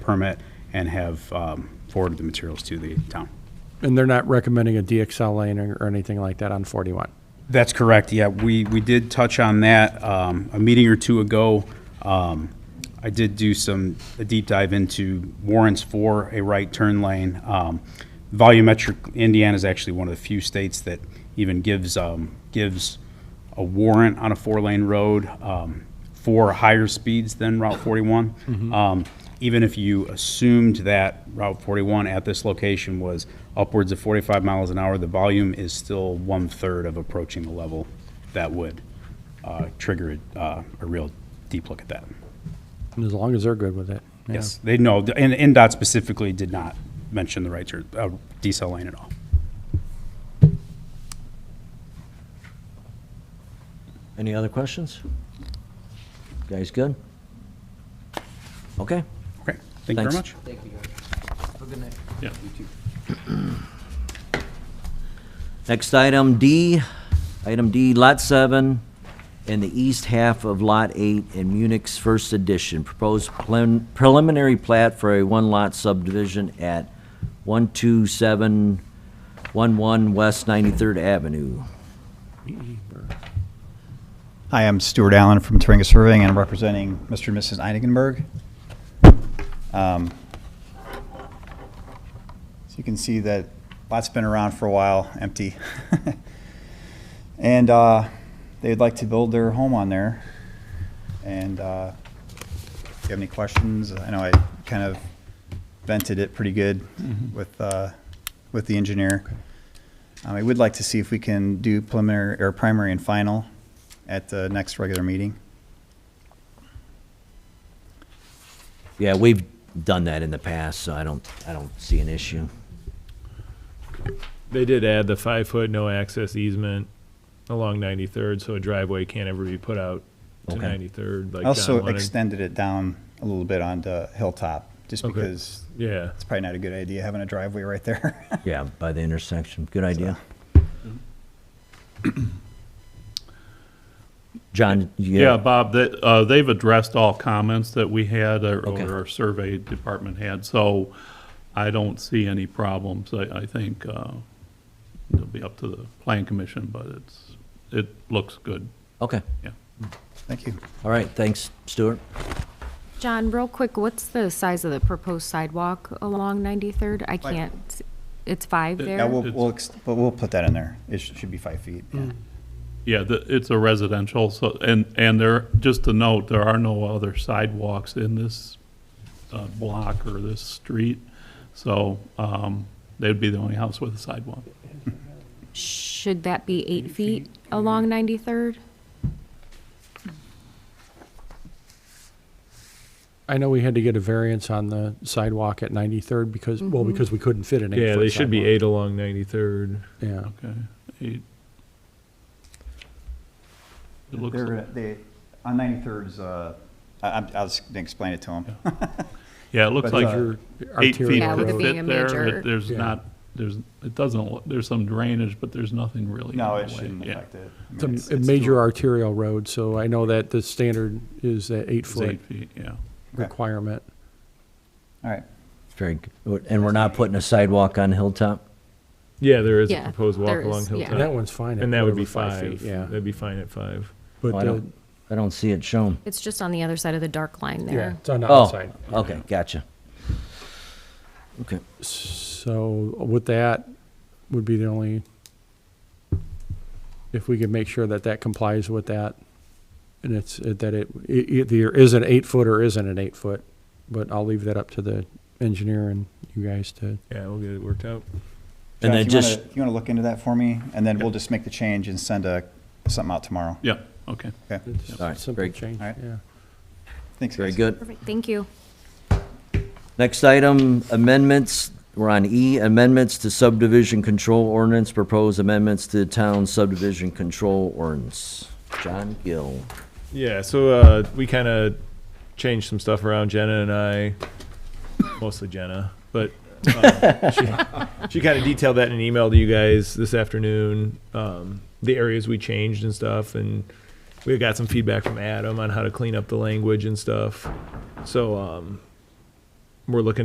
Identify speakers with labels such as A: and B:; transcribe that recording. A: permit and have um, forwarded the materials to the town.
B: And they're not recommending a DXL lane or or anything like that on 41?
A: That's correct, yeah. We, we did touch on that um, a meeting or two ago. Um, I did do some, a deep dive into warrants for a right turn lane. Um, Volumetric, Indiana is actually one of the few states that even gives, um, gives a warrant on a four-lane road um, for higher speeds than Route 41. Um, Even if you assumed that Route 41 at this location was upwards of 45 miles an hour, the volume is still one-third of approaching the level that would uh, trigger uh, a real deep look at that.
B: And as long as they're good with it. yeah.
A: Yes, they know, and NDOT specifically did not mention the right turn, uh, decel lane at all.
C: Any other questions? Guys, good? Okay.
A: Okay, thank you very
C: Thanks.
A: much.
C: Next item D, item D, Lot 7, in the east half of Lot 8 in Munich's First Edition. Proposed prelim- preliminary plat for a one-lot subdivision at 12711 West 93rd Avenue.
D: Hi, I'm Stuart Allen from Turinga Surveying, and I'm representing Mr. and Mrs. Einigenberg. Um, So you can see that lot's been around for a while, empty. And uh, they'd like to build their home on there. And uh, if you have any questions, I know I kind of vented it pretty good with, uh, with the engineer. Um, I would like to see if we can do preliminary, or primary and final at the next regular meeting.
C: Yeah, we've done that in the past, so I don't, I don't see an issue.
E: They did add the five foot no access easement along ninety third, so a driveway can't ever be put out to
C: Okay.
E: ninety third. Like
D: I also
E: John wanted.
D: extended it down a little bit onto Hilltop, just
E: Okay.
D: because
E: Yeah,
D: it's probably not a good idea having a driveway right there.
C: Yeah, by the intersection. Good idea. Mm-hmm. John, you
F: Yeah,
C: got-
F: Bob, that, uh, they've addressed all comments that we had or
C: Okay.
F: or our survey department had, so I don't see any problems. I, I think, uh, it'll be up to the plan commission, but it's, it looks good.
C: okay.
D: Thank you.
C: All right, thanks, Stuart.
G: John, real quick, what's the size of the proposed sidewalk along 93rd? I
D: Five.
G: can't, s- it's five there?
D: Yeah, we'll,
F: It's-
D: we'll, ex- but we'll put that in there. It sh- should be five feet. yeah.
F: Yeah, the, it's a residential, so, and, and there, just to note, there are no other sidewalks in this, uh, block or this street. So, um, they'd be the only house with a sidewalk.
G: Should that be eight feet along 93rd?
B: I know we had to get a variance on the sidewalk at 93rd because, well, because we couldn't fit an eight-foot
E: yeah, they should be
B: sidewalk.
E: eight along ninety third.
B: Yeah.
F: Okay. It it looks.
D: They're, they, on 93rd's, uh, I, I'm- I was gonna explain it to them.
F: Yeah, it looks
D: But,
F: like
D: uh,
F: your eight
B: Arterial
F: feet
G: Yeah, with
F: could
G: it
B: road.
G: being a
F: fit there.
G: major-
F: It- There's
B: Yeah.
F: not, there's, it doesn't, look- there's some drainage, but there's nothing really.
D: No,
F: in
D: it
F: the way.
D: shouldn't
F: Yeah.
D: affect it. I mean,
B: It's a-
D: it's-
B: a
D: it's
B: major
D: still-
B: arterial road, so I know that the standard is that
F: It's
B: eight-foot
F: eight feet, yeah.
D: Okay.
B: requirement.
D: All right.
C: Very, good. and we're not putting a sidewalk on Hilltop?
E: Yeah, there is a
G: Yeah,
E: proposed
G: there
E: walk along
G: is, yeah.
B: And
E: Hilltop.
B: that one's fine at
E: Uh, And that would be
B: whatever,
E: five.
B: feet, Yeah.
E: That'd be fine at five.
B: But,
C: Oh, I
B: uh,
C: don't, I don't see it shown.
G: It's just on the other side of the dark line
B: yeah,
G: there.
B: it's on the
C: Oh,
B: outside.
C: okay, gotcha. Okay,
B: So with that, would be the only, if we could make sure that that complies with that, and it's, that it, it either is an eight foot or isn't an eight foot, but I'll leave that up to the engineer and you guys to,
E: Yeah, we'll get it worked out.
C: and then
D: Josh, you wanna-
C: just,
D: If you wanna look into that for me, and then we'll just make the change and send a, something out tomorrow.
F: Yeah, okay.
D: Okay,
B: it's
C: All right,
B: simple
C: very-
B: change,
D: all right.
B: yeah.
D: thanks,
C: very
D: guys.
C: good.
G: Perfect, thank you.
C: Next item, amendments, we're on E, amendments to subdivision control ordinance, proposed amendments to town subdivision control ordinance. John Gill.
E: Yeah, so uh, we kind of changed some stuff around. Jenna and I, mostly Jenna, but um, she, she kind of detailed that in an email to you guys this afternoon. Um, the areas we changed and stuff, and we got some feedback from Adam on how to clean up the language and stuff. So um, we're looking